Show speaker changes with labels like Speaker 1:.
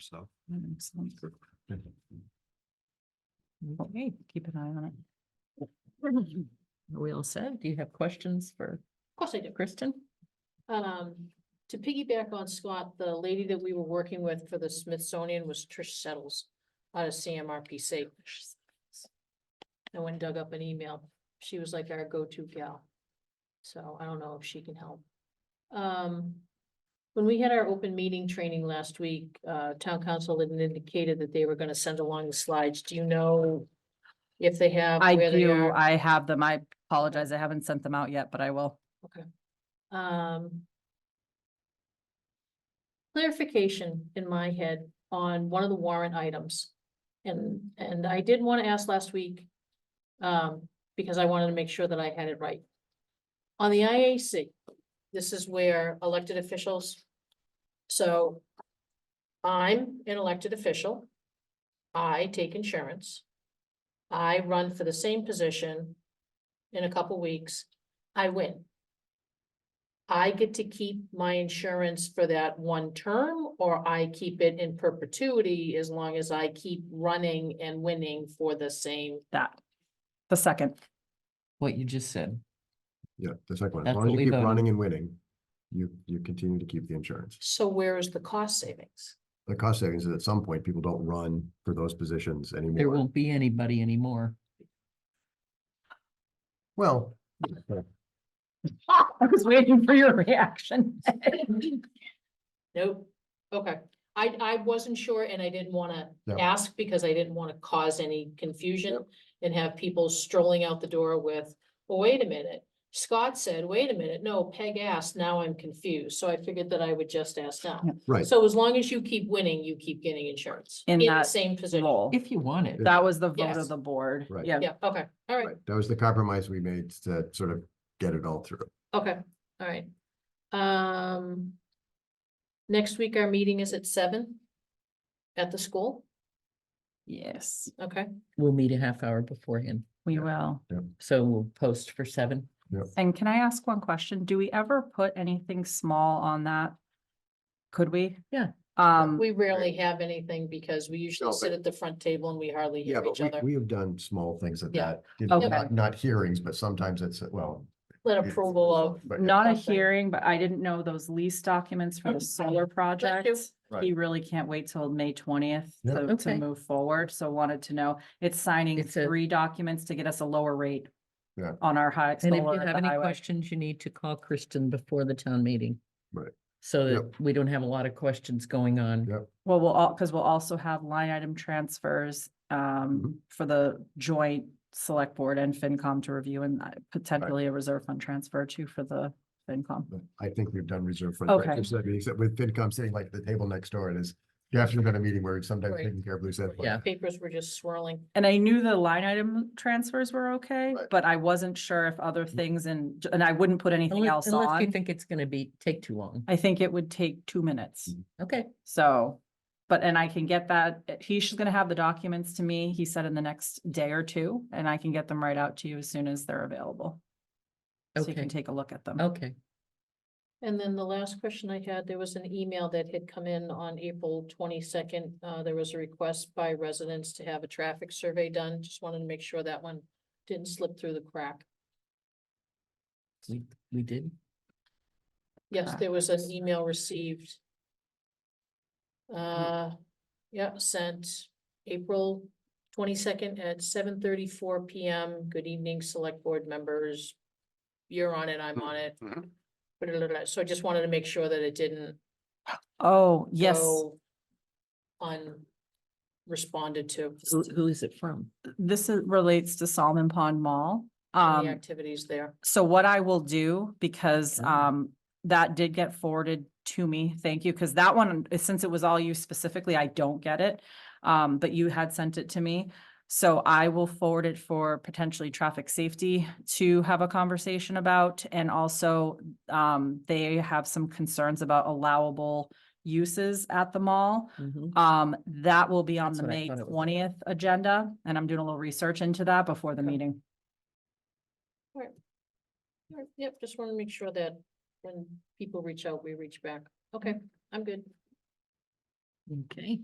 Speaker 1: so.
Speaker 2: Excellent. Okay, keep an eye on it. Are We all said, do you have questions for
Speaker 3: Of course I do.
Speaker 2: Kristen?
Speaker 3: Um, to piggyback on Scott, the lady that we were working with for the Smithsonian was Trish Settles out of CMRPC. No one dug up an email. She was like our go-to gal. So I don't know if she can help. Um, when we had our open meeting training last week, uh, town council had indicated that they were gonna send along the slides. Do you know if they have?
Speaker 4: I
Speaker 3: where they
Speaker 4: do,
Speaker 3: are?
Speaker 4: I have them. I apologize. I haven't sent them out yet, but I will.
Speaker 3: um. Clarification in my head on one of the warrant items. And, and I did want to ask last week. Um, because I wanted to make sure that I had it right. On the IAC, this is where elected officials. So. I'm an elected official. I take insurance. I run for the same position. In a couple weeks, I win. I get to keep my insurance for that one term, or I keep it in perpetuity as long as I keep running and winning for the same.
Speaker 4: That. The second,
Speaker 5: what you just said.
Speaker 1: Yeah, the second one,
Speaker 5: That's
Speaker 1: as long
Speaker 5: what
Speaker 1: as
Speaker 5: we
Speaker 1: you keep
Speaker 5: voted.
Speaker 1: running and winning, you, you continue to keep the insurance.
Speaker 3: So where is the cost savings?
Speaker 1: The cost savings is at some point, people don't run for those positions
Speaker 5: There
Speaker 1: anymore.
Speaker 5: won't be anybody anymore.
Speaker 1: Well,
Speaker 4: I was waiting for your reaction.
Speaker 3: Nope. Okay, I, I wasn't sure and I didn't wanna
Speaker 1: No.
Speaker 3: ask because I didn't wanna cause any confusion and have people strolling out the door with, well, wait a minute. Scott said, wait a minute, no, Peg asked, now I'm confused. So I figured that I would just ask now.
Speaker 1: right,
Speaker 3: So as long as you keep winning, you keep getting insurance.
Speaker 4: In
Speaker 3: the
Speaker 4: that
Speaker 3: Same position.
Speaker 4: Lol.
Speaker 5: If you want it,
Speaker 4: That was the vote
Speaker 3: Yes.
Speaker 4: of the board.
Speaker 1: Right.
Speaker 4: Yeah,
Speaker 3: Yeah, okay, all right,
Speaker 1: right. That was the compromise we made to sort of get it all through.
Speaker 3: okay, all right. Um. Next week, our meeting is at seven. At the school,
Speaker 4: yes,
Speaker 3: okay,
Speaker 5: we'll meet a half hour beforehand.
Speaker 4: we will.
Speaker 5: So we'll post for seven.
Speaker 4: And can I ask one question? Do we ever put anything small on that? Could we?
Speaker 5: Yeah.
Speaker 4: Um,
Speaker 3: we rarely have anything because we usually
Speaker 1: No,
Speaker 3: sit
Speaker 1: but-
Speaker 3: at the front table and we hardly
Speaker 1: Yeah,
Speaker 3: hear
Speaker 1: but
Speaker 3: each
Speaker 1: we,
Speaker 3: other.
Speaker 1: we have done small things at
Speaker 3: Yeah.
Speaker 1: that, you know,
Speaker 4: Okay.
Speaker 1: not, not hearings, but sometimes it's, well.
Speaker 3: Let
Speaker 1: it's-
Speaker 3: approval of,
Speaker 1: but-
Speaker 4: not a
Speaker 3: something.
Speaker 4: hearing, but I didn't know those lease documents for the
Speaker 3: Okay.
Speaker 4: solar project.
Speaker 1: Right.
Speaker 4: He really can't wait till May twentieth
Speaker 1: Yeah.
Speaker 4: to, to
Speaker 5: Okay.
Speaker 4: move forward, so wanted to know, it's signing
Speaker 5: It's a-
Speaker 4: three documents to get us a lower rate.
Speaker 1: Yeah.
Speaker 4: On our high.
Speaker 5: And if
Speaker 4: solar
Speaker 5: you
Speaker 4: at
Speaker 5: have
Speaker 4: the
Speaker 5: any
Speaker 4: highway.
Speaker 5: questions, you need to call Kristen before the town meeting.
Speaker 1: Right.
Speaker 5: So
Speaker 1: Yep.
Speaker 5: that we don't have a lot of questions going on.
Speaker 1: Yep.
Speaker 4: Well, we'll all, because we'll also have line item transfers
Speaker 1: Mm-hmm.
Speaker 4: um for the joint select board and FinCom to review and uh, potentially a reserve fund transfer too for the FinCom.
Speaker 1: But I think we've done reserve for.
Speaker 4: Okay.
Speaker 1: Except with FinCom sitting like at the table next door, it is, you have to go to a meeting where it's sometimes
Speaker 3: Right.
Speaker 1: taking care of loose ends.
Speaker 5: Yeah.
Speaker 3: papers were just swirling.
Speaker 4: And I knew the line item transfers were okay,
Speaker 1: Right.
Speaker 4: but I wasn't sure if other things and, and I wouldn't put anything
Speaker 5: Unless
Speaker 4: else
Speaker 5: unless you
Speaker 4: on.
Speaker 5: think it's gonna be, take too long.
Speaker 4: I think it would take two minutes.
Speaker 5: Okay,
Speaker 4: So, but, and I can get that, uh, he's just gonna have the documents to me, he said in the next day or two, and I can get them right out to you as soon as they're available. So you
Speaker 5: Okay. Oh.
Speaker 4: can take a look at them.
Speaker 5: okay.
Speaker 3: And then the last question I had, there was an email that had come in on April twenty-second. Uh, there was a request by residents to have a traffic survey done. Just wanted to make sure that one didn't slip through the crack.
Speaker 5: We, we did.
Speaker 3: Yes, there was an
Speaker 4: Practice.
Speaker 3: email received. Uh, yeah, sent April twenty-second at seven thirty-four PM. Good evening, select board members. You're on it, I'm on it.
Speaker 1: Mhm.
Speaker 3: Ba-da-da-da. So I just wanted to make sure that it didn't
Speaker 4: Oh, yes,
Speaker 3: go unresponded to
Speaker 5: Who, who is it from?
Speaker 4: this is- relates to Salmon Pond Mall.
Speaker 3: and the
Speaker 4: Um,
Speaker 3: activities there.
Speaker 4: so what I will do, because,
Speaker 5: Oh.
Speaker 4: um, that did get forwarded to me, thank you, because that one, uh, since it was all you specifically, I don't get it. Um, but you had sent it to me, so I will forward it for potentially traffic safety to have a conversation about. And also, um, they have some concerns about allowable uses at the mall.
Speaker 5: Mhm.
Speaker 4: Um, that will be on
Speaker 5: That's
Speaker 4: the
Speaker 5: what I
Speaker 4: May
Speaker 5: thought it was.
Speaker 4: twentieth agenda, and I'm doing a little research into that before the
Speaker 3: Okay.
Speaker 4: meeting.
Speaker 3: Alright, Yep, just want to make sure that when people reach out, we reach back. Okay, I'm good.
Speaker 5: Okay.